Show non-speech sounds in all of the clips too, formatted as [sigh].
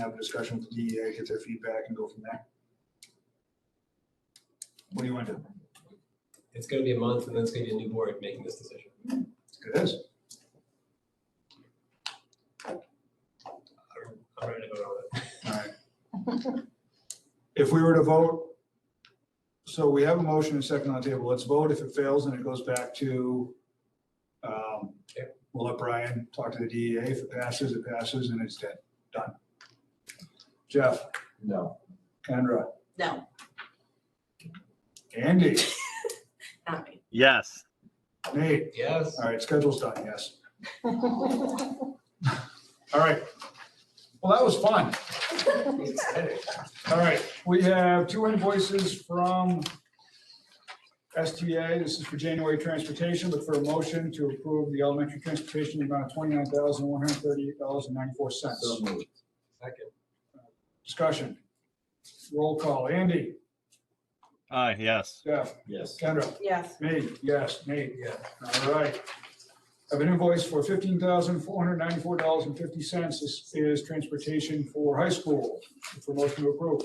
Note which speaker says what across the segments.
Speaker 1: have a discussion with the DEA, get their feedback and go from there. What do you want to do?
Speaker 2: It's gonna be a month and then it's gonna be a new board making this decision.
Speaker 1: It is.
Speaker 2: I'm- I'm ready to vote on it.
Speaker 1: Alright. If we were to vote, so we have a motion and second on the table, let's vote, if it fails, then it goes back to, um,
Speaker 2: Yep.
Speaker 1: we'll let Brian talk to the DEA, if it passes, it passes, and it's dead, done. Jeff,
Speaker 3: No.
Speaker 1: Kendra,
Speaker 4: No,
Speaker 1: Andy,
Speaker 4: not me.
Speaker 5: Yes.
Speaker 1: Nate,
Speaker 2: Yes,
Speaker 1: alright, schedule's done, yes. Alright, well, that was fun.
Speaker 2: it's exciting.
Speaker 1: All right, we have two invoices from STA. This is for January transportation, look for a motion to approve the elementary transportation in the amount of twenty-nine thousand, one hundred thirty-eight dollars and ninety-four cents.
Speaker 3: moved.
Speaker 2: Second,
Speaker 1: Discussion. Roll call. Andy,
Speaker 5: Aye, yes.
Speaker 1: Jeff,
Speaker 3: Yes.
Speaker 1: Kendra,
Speaker 4: Yes,
Speaker 1: me, yes, Nate.
Speaker 2: yeah,
Speaker 1: All right. I have an invoice for fifteen thousand, four hundred ninety-four dollars and fifty cents. This is transportation for high school. Look For motion to approve.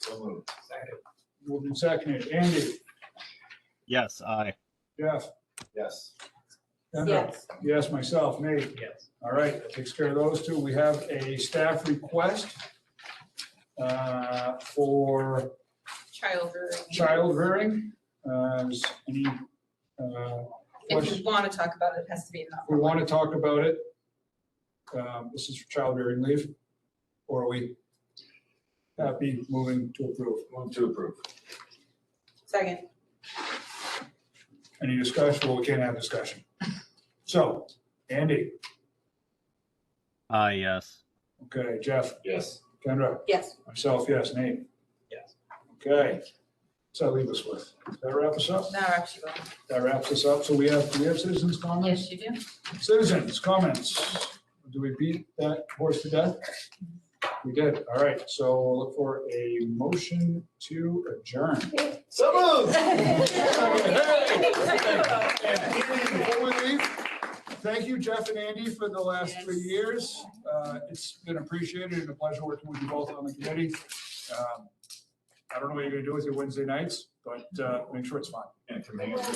Speaker 3: So moved.
Speaker 2: second,
Speaker 1: Moved and seconded. Andy,
Speaker 5: Yes, aye.
Speaker 1: Jeff,
Speaker 3: Yes.
Speaker 1: Kendra.
Speaker 4: yes,
Speaker 1: Yes, myself, Nate.
Speaker 2: yes.
Speaker 1: All right, that takes care of those two. We have a staff request uh, for
Speaker 4: child rearing.
Speaker 1: child rearing. Uh, is Any, uh,
Speaker 4: If
Speaker 1: question?
Speaker 4: you want to talk about it, it has to be in the.
Speaker 1: If we want to talk about it, um, this is for child rearing leave, or are we happy moving to approve?
Speaker 3: Move to approve.
Speaker 4: Second,
Speaker 1: Any discussion? Well, we can't have discussion. So, Andy,
Speaker 5: Aye, yes.
Speaker 1: okay, Jeff,
Speaker 3: Yes.
Speaker 1: Kendra,
Speaker 4: yes,
Speaker 1: myself, yes, Nate.
Speaker 2: Yes.
Speaker 1: Okay, so leave us with, does that wrap us up?
Speaker 4: now we're actually going.
Speaker 1: That wraps us up. So we have, do we have citizens' comments?
Speaker 4: Yes, [laughs] you do.
Speaker 1: Citizens' comments. Do we beat that horse to death? We did. All right. So we'll look for a motion to adjourn.
Speaker 3: So moved.
Speaker 1: Before we leave, Thank you, Jeff and Andy, for the last three years. Uh, It's been appreciated and a pleasure working with you both on the committee. Um, I don't know what you're going to do with your Wednesday nights, but uh, make sure it's fun.
Speaker 3: And from here, you
Speaker 6: [laughs]
Speaker 3: guys.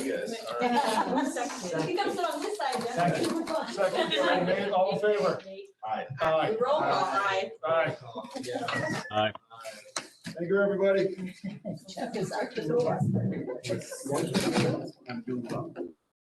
Speaker 6: You can sit on this side, Jeff.
Speaker 1: Second, all
Speaker 6: [laughs]
Speaker 1: in- all in favor?
Speaker 3: Aye.
Speaker 1: Aye.
Speaker 4: [laughs] Roll call,
Speaker 1: Uh,
Speaker 4: aye.
Speaker 1: Aye.
Speaker 2: Oh, yeah.
Speaker 5: Aye.
Speaker 1: Thank you, [laughs] everybody.
Speaker 6: Jeff is our.